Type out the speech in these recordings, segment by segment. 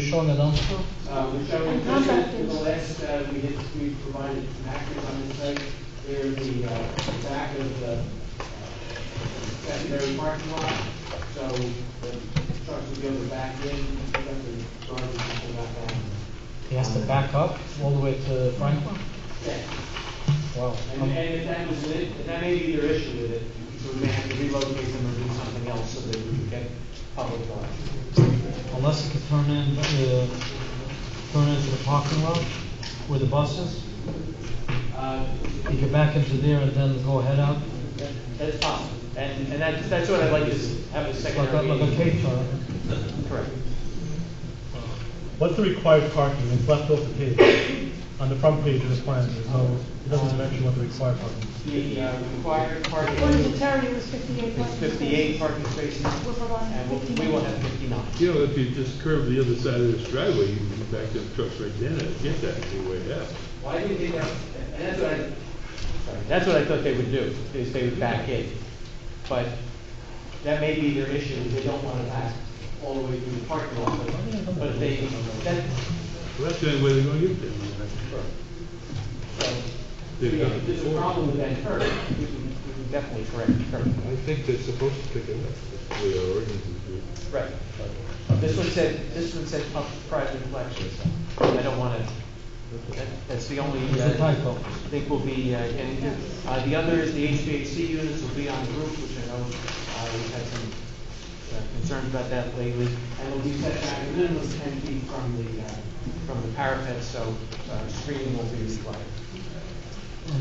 Sean Alonso. Um, showing the to the last, uh, we had, we provided some actors on this site, there in the, uh, the back of the uh, secondary parking lot, so the trucks would be able to back in, and pick up the garbage and pull that down. He has to back up all the way to Franklin. Yeah, Wow. and, and if that was it, if that may be their issue with it, so we may have to relocate them or do something else so that we can get public garbage. Unless he could turn in, uh, turn into the parking lot with the buses. Uh, He could back into there and then go head out, That's possible, and, and that's, that's what I'd like is have a like a, secondary like a uh, meeting. K-turn. Correct. What's the required parking, it's left off the page, on the front page of the plan, there's no, it doesn't mention what the required parking. is. The uh, required parking What is it, is Terry, it was fifty-eight parking spaces? fifty-eight parking spaces, We're providing and we'll- we will have fifty-nine. You know, if you just curve the other side of this driveway, you can back them trucks right then and get that anyway, out. Why do you think that, and that's what I, sorry, that's what I thought they would do, is they would back in. But that may be their issue, is they don't want to back all the way through the parking lot, but, but they, that, Well, that's the only way they're gonna get there. so, They've yeah, done it if there's a before. problem with that curb, we can, we can definitely correct the curb. I think they're supposed to pick it up. We are ordinance is Right. This one said, this one said pub- private collection, so I don't want to, that- that's the only. It's a uh, typo. I think will be, uh, and, uh, the other is the HVAC units will be on the roof, which I know, uh, we've had some uh, concerns about that lately. And it'll be set back a minimum of ten feet from the, uh, from the parapet, so, uh, screening will be required.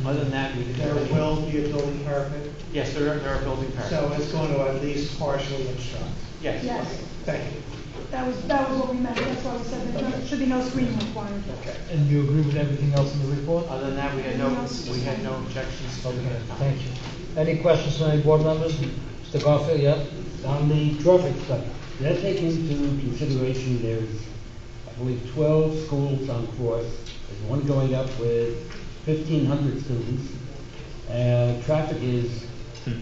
Other than that, we didn't. There have any- will be a building permit, Yes, there are, there are building so parapets. it's going to at least partially obstruct. Yes. Yes, Thank you. that was, that was what we meant, that's why we said there should- should be no screening required. Okay. And you agree with everything else in the report? Other than that, we had no, we had no objections. to Okay, that. thank you. Any questions from any board members? Mr. Garfield, yeah? On the traffic study, let's take into consideration there's, I believe, twelve schools on course. There's one going up with fifteen hundred students. Uh, traffic is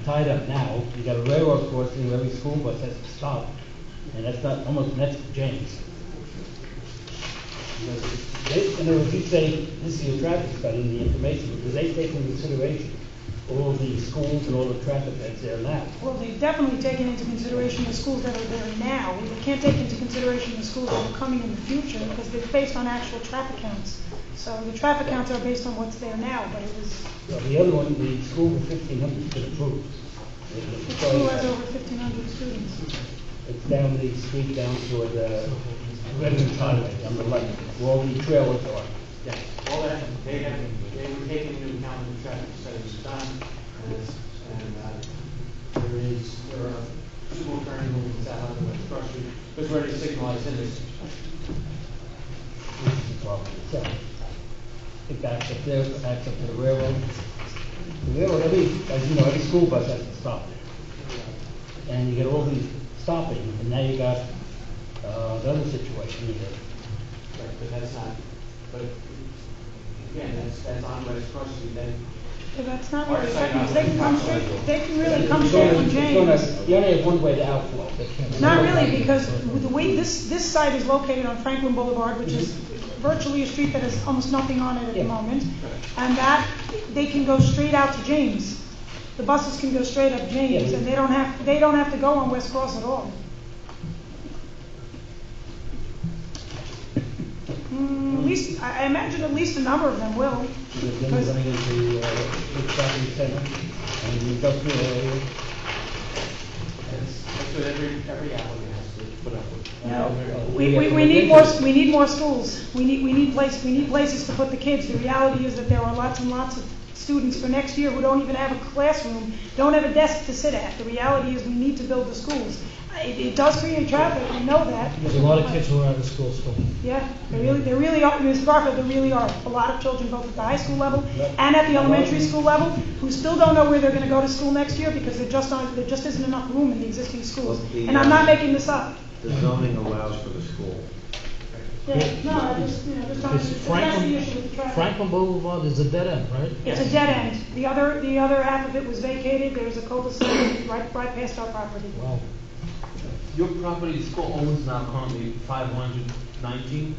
tied up now. You got a railroad crossing where every school bus has to stop, and that's not, almost next to James. You know, they- In other words, you say, this is your traffic study, and the information, because they take into consideration all the schools and all the traffic that's there now. Well, they've definitely taken into consideration the schools that are there now, we can't take into consideration the schools that are coming in the future, because they're based on actual traffic counts. So the traffic counts are based on what's there now, but it was, Well, the other one, the school with fifteen hundred's been approved. the school has over fifteen hundred students. It's down the street down toward the Redmond Highway on the left, where all the trailers are. Yeah, all that, they have, they were taking into account the traffic studies done, and it's, and, uh, there is, there are two more turning movements out of the way, especially, because we're already signalized in this. This is the problem itself. It backs up there, it backs up to the railroad. The railroad, every, as you know, every school bus has to stop. And you get all these stopping, and now you got, uh, the other situation you have. Right, but that's not, but, again, that's, that's on West Cross Street, then, But that's not really, effective. they can come straight, they can really come straight from It's gonna- it's James. gonna- You only have one way to outflow. They can't- Not really, because the way this, this site is located on Franklin Boulevard, which is virtually a street that has almost nothing on it at the Yeah. moment, and that, they can go straight out to James. The buses can go straight up James, Yeah. and they don't have, they don't have to go on West Cross at all. Hmm, at least, I I imagine at least a number of them will. Because then you're running into, uh, big shopping center and the industrial area. that's, that's what every, every applicant has to put up with. No, we, we, we need more, we need more schools. We need, we need place, we need places to put the kids. The reality is that there are lots and lots of students for next year who don't even have a classroom, don't have a desk to sit at. The reality is we need to build the schools. It, it does create traffic, we know that. There's a lot of kids who are out of school still. Yeah, there really, there really are, Ms. Garfield, there really are a lot of children, both at the high school level and at the elementary school level, who still don't know where they're gonna go to school next year because there just aren't, there just isn't enough room in the existing schools. Well, the, And I'm uh, not making this up. The zoning allows for the school. Yeah, no, I just, you know, just trying to, It's that's the Franklin, issue with the traffic. Franklin Boulevard is a dead end, right? It's a dead end. The other, the other half of it was vacated, there's a cul-de-sac right, right past our property. Wow. Your property, the school owns now currently five hundred nineteen?